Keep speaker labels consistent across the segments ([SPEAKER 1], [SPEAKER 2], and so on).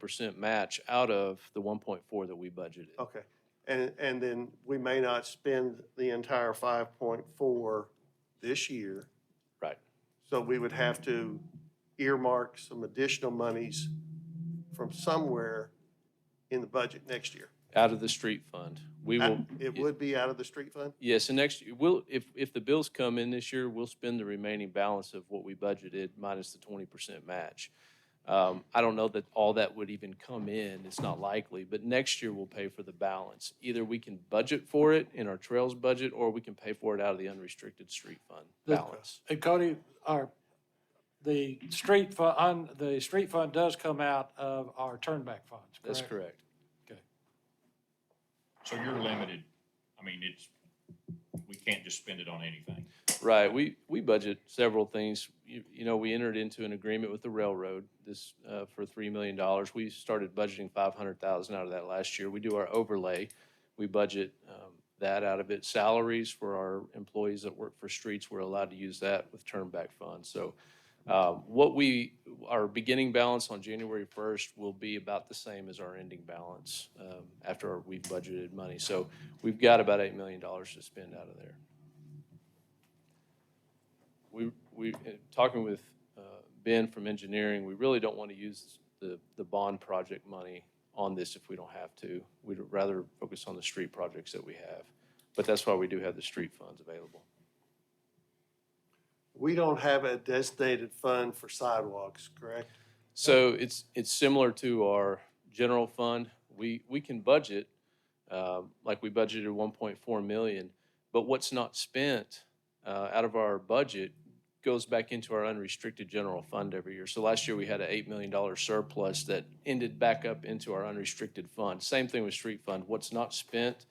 [SPEAKER 1] percent match out of the one point four that we budgeted.
[SPEAKER 2] Okay, and, and then we may not spend the entire five point four this year.
[SPEAKER 1] Right.
[SPEAKER 2] So we would have to earmark some additional monies from somewhere in the budget next year.
[SPEAKER 1] Out of the street fund. We will.
[SPEAKER 2] It would be out of the street fund?
[SPEAKER 1] Yes, and next, year we'll, if, if the bills come in this year, we'll spend the remaining balance of what we budgeted minus the twenty percent match. Um, I don't know that all that would even come in, it's not likely, but next year we'll pay for the balance. Either we can budget for it in our trails budget, or we can pay for it out of the unrestricted street fund
[SPEAKER 3] The-
[SPEAKER 1] balance.
[SPEAKER 3] And Cody, our, the street fund, on, the street fund does come out of our turnback funds, correct?
[SPEAKER 1] That's correct.
[SPEAKER 4] So you're limited, I mean, it's, we can't just spend it on anything.
[SPEAKER 1] Right, we, we budget several things. You, you know, we entered into an agreement with the railroad this, uh, for three million dollars. We started budgeting five hundred thousand out of that last year. We do our overlay. We budget, um, that out of it. Salaries for our employees that work for streets, we're allowed to use that with turn back funds. So, um, what we, our beginning balance on January first will be about the same as our ending balance, um, after we've budgeted money. So we've got about eight million dollars to spend out of there we, we, uh, talking with uh, Ben from engineering, we really don't want to use the, the bond project money on this if we don't have to. We'd rather focus on the street projects that we have. But that's why we do have the street funds available.
[SPEAKER 2] We don't have a designated fund for sidewalks, correct?
[SPEAKER 1] So it's, it's similar to our general fund. We, we can budget, um, like we budgeted one point four million, but what's not spent uh, out of our budget goes back into our unrestricted general fund every year. So last year, we had an eight million dollar surplus that ended back up into our unrestricted fund. Same thing with street fund. What's not spent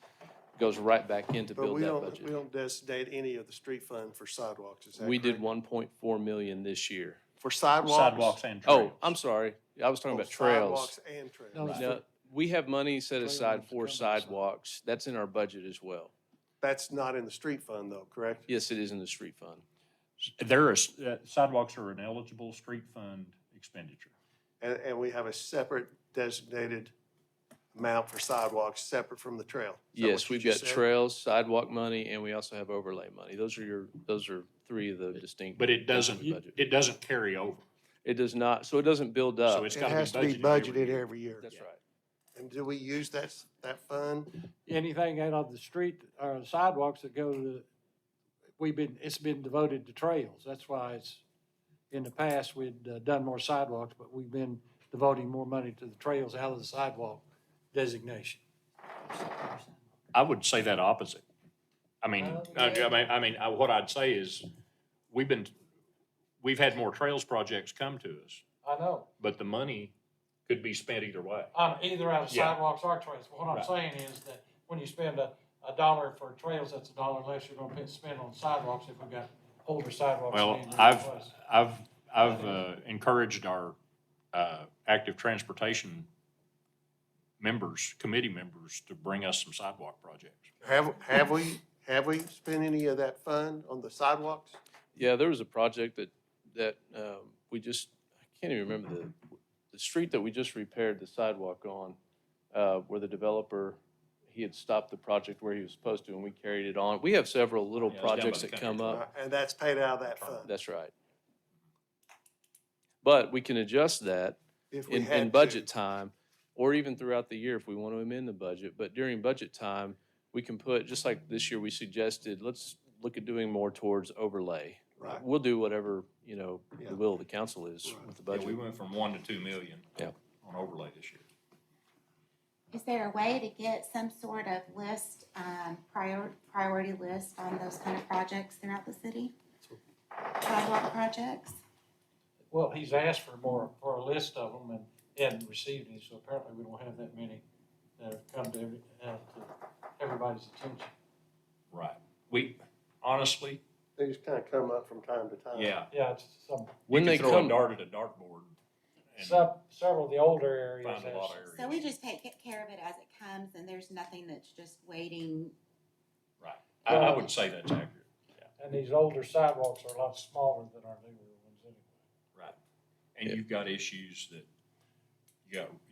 [SPEAKER 1] goes right back in to
[SPEAKER 2] But
[SPEAKER 1] build
[SPEAKER 2] we
[SPEAKER 1] that
[SPEAKER 2] don't, we
[SPEAKER 1] budget.
[SPEAKER 2] don't designate any of the street fund for sidewalks, is that
[SPEAKER 1] We did
[SPEAKER 2] correct?
[SPEAKER 1] one point four million this year.
[SPEAKER 2] For sidewalks?
[SPEAKER 4] Sidewalks and
[SPEAKER 1] Oh,
[SPEAKER 4] trails.
[SPEAKER 1] I'm sorry. I was talking
[SPEAKER 2] Oh,
[SPEAKER 1] about trails.
[SPEAKER 2] Sidewalks and
[SPEAKER 3] No,
[SPEAKER 2] trails.
[SPEAKER 3] it's
[SPEAKER 1] No,
[SPEAKER 3] for-
[SPEAKER 1] we have money set
[SPEAKER 3] Trailers
[SPEAKER 1] aside
[SPEAKER 3] to
[SPEAKER 1] for
[SPEAKER 3] cover the side.
[SPEAKER 1] sidewalks. That's in our budget as well.
[SPEAKER 2] That's not in the street fund though, correct?
[SPEAKER 1] Yes, it is in the street fund.
[SPEAKER 4] There is, uh, sidewalks are an eligible street fund expenditure.
[SPEAKER 2] And, and we have a separate designated amount for sidewalks, separate from the trail. Is that what
[SPEAKER 1] Yes,
[SPEAKER 2] you
[SPEAKER 1] we've got
[SPEAKER 2] just said?
[SPEAKER 1] trails, sidewalk money, and we also have overlay money. Those are your, those are three of the distinct.
[SPEAKER 4] But
[SPEAKER 1] things
[SPEAKER 4] it
[SPEAKER 1] that
[SPEAKER 4] doesn't,
[SPEAKER 1] we budget.
[SPEAKER 4] it doesn't carry over.
[SPEAKER 1] It does not, so it doesn't build up.
[SPEAKER 4] So it's
[SPEAKER 2] It
[SPEAKER 4] gotta
[SPEAKER 2] has to be budgeted
[SPEAKER 4] year.
[SPEAKER 2] every year.
[SPEAKER 1] That's right.
[SPEAKER 2] And do we use that, s- that fund?
[SPEAKER 3] Anything out of the street or sidewalks that go to, we've been, it's been devoted to trails. That's why it's, in the past, we'd uh, done more sidewalks, but we've been devoting more money to the trails out of the sidewalk designation.
[SPEAKER 4] I would say that opposite. I mean,
[SPEAKER 3] Oh,
[SPEAKER 4] I, I
[SPEAKER 3] yeah.
[SPEAKER 4] mean, I mean, I, what I'd say is, we've been, we've had more trails projects come to us,
[SPEAKER 3] I know.
[SPEAKER 4] but the money could be spent either way.
[SPEAKER 3] on either out of
[SPEAKER 4] Yeah.
[SPEAKER 3] sidewalks or trails. What I'm
[SPEAKER 4] Right.
[SPEAKER 3] saying is that when you spend a, a dollar for trails, that's a dollar less you're gonna pay- spend on sidewalks if we've got older sidewalks.
[SPEAKER 4] Well,
[SPEAKER 3] being
[SPEAKER 4] I've,
[SPEAKER 3] replaced.
[SPEAKER 4] I've, I've uh, encouraged our uh, active transportation members, committee members, to bring us some sidewalk projects.
[SPEAKER 2] Have, have we, have we spent any of that fund on the sidewalks?
[SPEAKER 1] Yeah, there was a project that, that um, we just, I can't even remember the, the street that we just repaired the sidewalk on, uh, where the developer, he had stopped the project where he was supposed to, and we carried it on. We have several little
[SPEAKER 4] Yeah, it was down by
[SPEAKER 1] projects
[SPEAKER 4] the
[SPEAKER 1] that
[SPEAKER 4] country
[SPEAKER 1] come up.
[SPEAKER 2] Uh, And that's paid out of that fund,
[SPEAKER 1] That's right. But we can adjust that
[SPEAKER 2] if we
[SPEAKER 1] in,
[SPEAKER 2] had
[SPEAKER 1] in
[SPEAKER 2] to.
[SPEAKER 1] budget time, or even throughout the year if we want to amend the budget. But during budget time, we can put, just like this year, we suggested, let's look at doing more towards overlay.
[SPEAKER 2] Right.
[SPEAKER 1] We'll do whatever, you know,
[SPEAKER 2] Yeah.
[SPEAKER 1] the will of the council is
[SPEAKER 2] Right.
[SPEAKER 1] with the
[SPEAKER 4] Yeah, we
[SPEAKER 1] budget.
[SPEAKER 4] went from one to two million.
[SPEAKER 1] Yeah.
[SPEAKER 4] On overlay this year.
[SPEAKER 5] Is there a way to get some sort of list, um, prior, priority list on those kind of projects throughout the city? Sidewalk projects?
[SPEAKER 3] Well, he's asked for more, for a list of them and he hadn't received any, so apparently we don't have that many that have come to every, uh, to everybody's attention.
[SPEAKER 4] Right. We, honestly,
[SPEAKER 2] They just kind of come up from time to time.
[SPEAKER 4] yeah.
[SPEAKER 3] Yeah, it's some,
[SPEAKER 1] When
[SPEAKER 4] you
[SPEAKER 1] they
[SPEAKER 4] could throw a
[SPEAKER 1] come,
[SPEAKER 4] dart at a dartboard. and
[SPEAKER 3] some, several of the older areas.
[SPEAKER 4] Find a lot
[SPEAKER 3] has-
[SPEAKER 4] of
[SPEAKER 5] So we
[SPEAKER 4] areas.
[SPEAKER 5] just take care of it as it comes and there's nothing that's just waiting.
[SPEAKER 4] Right. I, I would say that's accurate.
[SPEAKER 3] And these older sidewalks are a lot smaller than our newer ones anyway.
[SPEAKER 4] Right. And
[SPEAKER 1] Yeah.
[SPEAKER 4] you've got issues that, you got